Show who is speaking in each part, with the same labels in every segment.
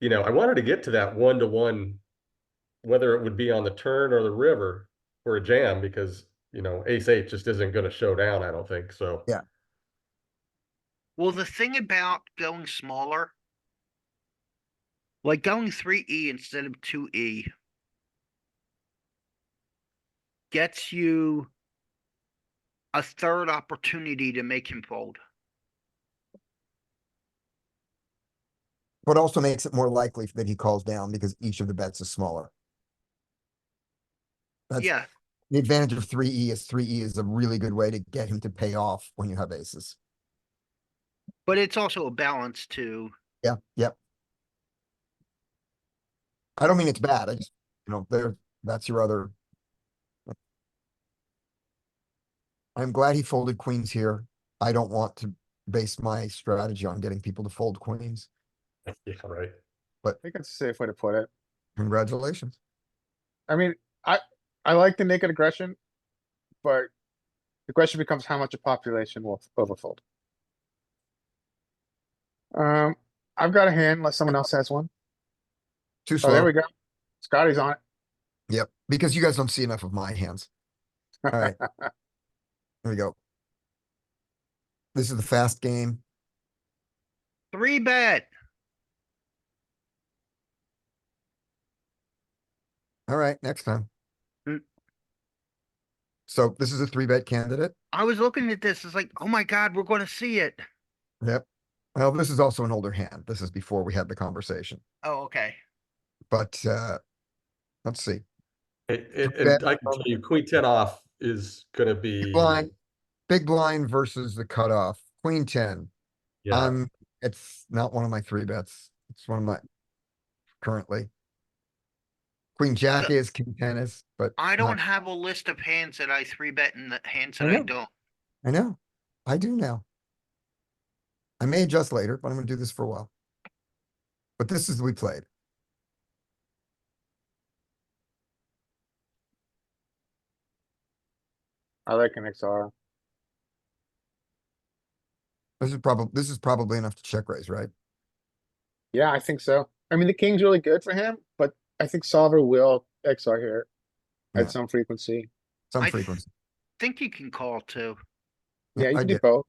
Speaker 1: you know, I wanted to get to that one to one, whether it would be on the turn or the river or a jam, because, you know, ace eight just isn't gonna show down, I don't think, so.
Speaker 2: Yeah.
Speaker 3: Well, the thing about going smaller. Like going three E instead of two E. Gets you. A third opportunity to make him fold.
Speaker 2: But also makes it more likely that he calls down because each of the bets is smaller. That's
Speaker 3: Yeah,
Speaker 2: the advantage of three E is three E is a really good way to get him to pay off when you have aces.
Speaker 3: but it's also a balance too.
Speaker 2: Yeah, yep. I don't mean it's bad. I just, you know, there, that's your other. I'm glad he folded queens here. I don't want to base my strategy on getting people to fold queens.
Speaker 1: Yeah, right.
Speaker 4: I think that's a safe way to put it.
Speaker 2: Congratulations.
Speaker 4: I mean, I, I like the naked aggression, but the question becomes how much a population will overfold. Um, I've got a hand unless someone else has one.
Speaker 2: Too
Speaker 4: Oh, there we
Speaker 2: slow.
Speaker 4: go. Scotty's on it.
Speaker 2: Yep, because you guys don't see enough of my hands. Alright. Here we go. This is the fast game.
Speaker 3: Three bet.
Speaker 2: Alright, next time.
Speaker 3: Mm.
Speaker 2: So this is a three bet candidate.
Speaker 3: I was looking at this, it's like, oh my god, we're gonna see it.
Speaker 2: Yep. Well, this is also an older hand. This is before we had the conversation,
Speaker 3: Oh, okay.
Speaker 2: but, uh, let's see.
Speaker 1: It, it, and I can tell you, queen ten off is gonna be.
Speaker 2: Blind, big blind versus the cutoff, queen ten.
Speaker 1: Yeah,
Speaker 2: Um, it's not one of my three bets. It's one of my currently. Queen jack is, king ten is, but.
Speaker 3: I
Speaker 2: not-
Speaker 3: don't have a list of hands that I three bet and the hands
Speaker 2: I
Speaker 3: that I
Speaker 2: know.
Speaker 3: don't.
Speaker 2: I know. I do now. I may adjust later, but I'm gonna do this for a while. But this is, we played.
Speaker 4: I like an XR.
Speaker 2: This is probably, this is probably enough to check raise, right?
Speaker 4: Yeah, I think so. I mean, the king's really good for him, but I think solver will XR here
Speaker 2: Yeah.
Speaker 4: at some frequency.
Speaker 2: Some
Speaker 3: I th-
Speaker 2: frequency.
Speaker 3: Think you can call too.
Speaker 4: Yeah, you
Speaker 2: I
Speaker 4: can do
Speaker 2: did.
Speaker 4: both.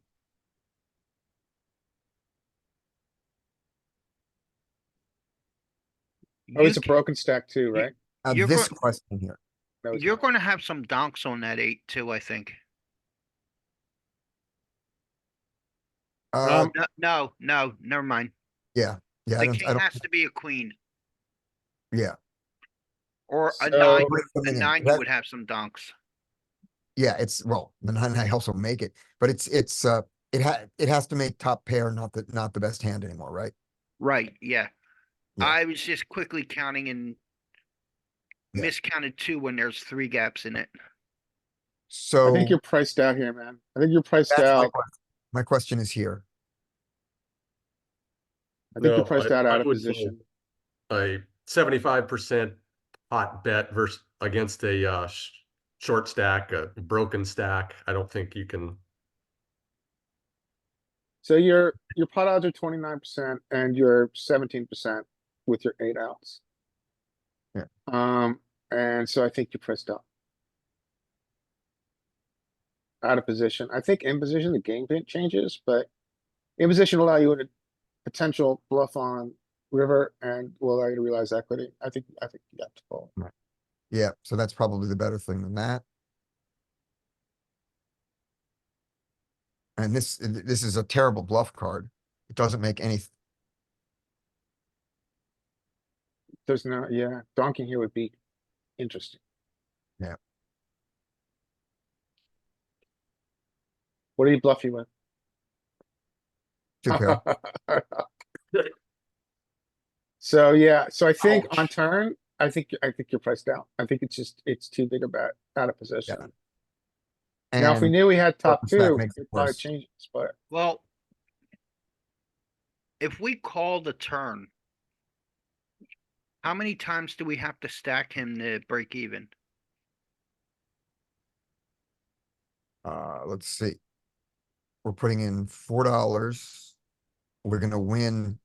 Speaker 4: Oh,
Speaker 3: You
Speaker 4: it's a
Speaker 3: can-
Speaker 4: broken stack too, right?
Speaker 2: Uh,
Speaker 3: you're
Speaker 2: this
Speaker 3: going-
Speaker 2: question here.
Speaker 4: No, it's
Speaker 3: You're
Speaker 4: not.
Speaker 3: gonna have some donks on that eight too, I think.
Speaker 2: Uh,
Speaker 4: Um,
Speaker 3: No, no, no, never mind.
Speaker 2: yeah, I
Speaker 3: The
Speaker 2: don't, I
Speaker 3: king
Speaker 2: don't,
Speaker 3: has to be a queen
Speaker 2: yeah.
Speaker 3: or a
Speaker 4: So-
Speaker 3: nine.
Speaker 2: break them
Speaker 3: A
Speaker 2: in.
Speaker 3: nine you
Speaker 2: That-
Speaker 3: would have some donks.
Speaker 2: Yeah, it's, well, the nine, I also make it, but it's, it's, uh, it ha, it has to make top pair, not the, not the best hand anymore, right?
Speaker 3: Right, yeah.
Speaker 2: Yeah.
Speaker 3: I was just quickly counting and
Speaker 2: Yeah.
Speaker 3: miscounted two when there's three gaps in it.
Speaker 2: So.
Speaker 4: I think you're priced out here, man. I think you're priced
Speaker 2: that's my
Speaker 4: out.
Speaker 2: question. My question is here.
Speaker 4: I think
Speaker 1: no,
Speaker 4: you're priced out
Speaker 1: I
Speaker 4: out of
Speaker 1: would say
Speaker 4: position.
Speaker 1: A seventy-five percent hot bet versus, against a, uh, sh- short stack, a broken stack, I don't think you can,
Speaker 4: So your, your pot odds are twenty-nine percent and you're seventeen percent with your eight outs.
Speaker 2: Yeah.
Speaker 4: Um, and so I think you're priced out. Out of position. I think in position, the game plan changes, but in position will allow you a potential bluff on river and will allow you to realize equity. I think, I think you have to fold.
Speaker 2: Yeah, so that's probably the better thing than that. And this, th- this is a terrible bluff card. It doesn't make any,
Speaker 4: There's no, yeah, donking here would be interesting.
Speaker 2: Yeah.
Speaker 4: What do you bluff you with?
Speaker 2: two pair.
Speaker 4: So, yeah, so I think
Speaker 3: Ouch.
Speaker 4: on turn, I think, I think you're priced out. I think it's just, it's too big a bet, out of position. Now, if we
Speaker 2: And-
Speaker 4: knew we had top
Speaker 2: open stack
Speaker 4: two,
Speaker 2: makes it
Speaker 4: it probably
Speaker 2: worse.
Speaker 4: changes, but
Speaker 3: Well, if we call the turn, how many times do we have to stack him to break even?
Speaker 2: Uh, let's see. We're putting in four dollars. We're gonna win